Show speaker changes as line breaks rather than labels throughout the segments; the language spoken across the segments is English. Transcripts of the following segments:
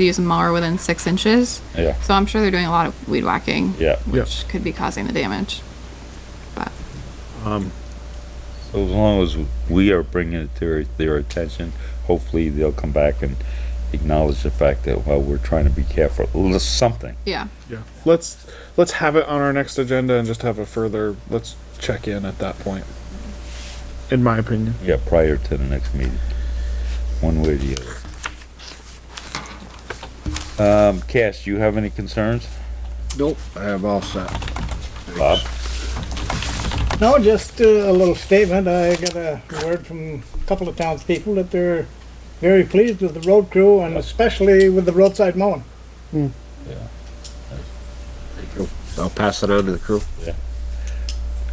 to use a mower within six inches.
Yeah.
So I'm sure they're doing a lot of weed whacking.
Yeah.
Yeah.
Which could be causing the damage. But
So as long as we are bringing it to their, their attention, hopefully they'll come back and acknowledge the fact that, well, we're trying to be careful, L- something.
yeah,
Yeah, let's let's have it on our next agenda and just have a further. Let's check in at that point. In my opinion,
Yeah, prior to the next meeting, one way or the other. Um, Cash, do you have any concerns?
Nope, I have all set.
Bob?
No, just uh, a little statement. I got a word from a couple of townspeople that they're very pleased with the road crew and especially with the roadside mowing.
I'll pass it on to the crew.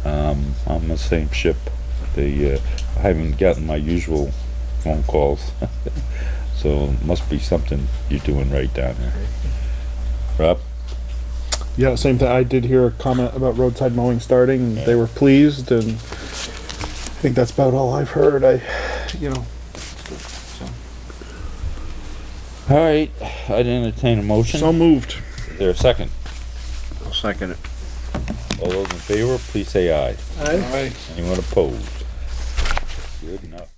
Um, I'm the same ship. The, uh, I haven't gotten my usual phone calls. So must be something you're doing right down there. Rob?
yeah, same thing. I did hear a comment about roadside mowing starting. And They were pleased, and I think that's about all I've heard. I, you know,
All right, I'd entertain a motion.
so moved.
Is there a second?
I'll second it.
All those in favor, please say aye.
Aye.
Anyone opposed? Good enough.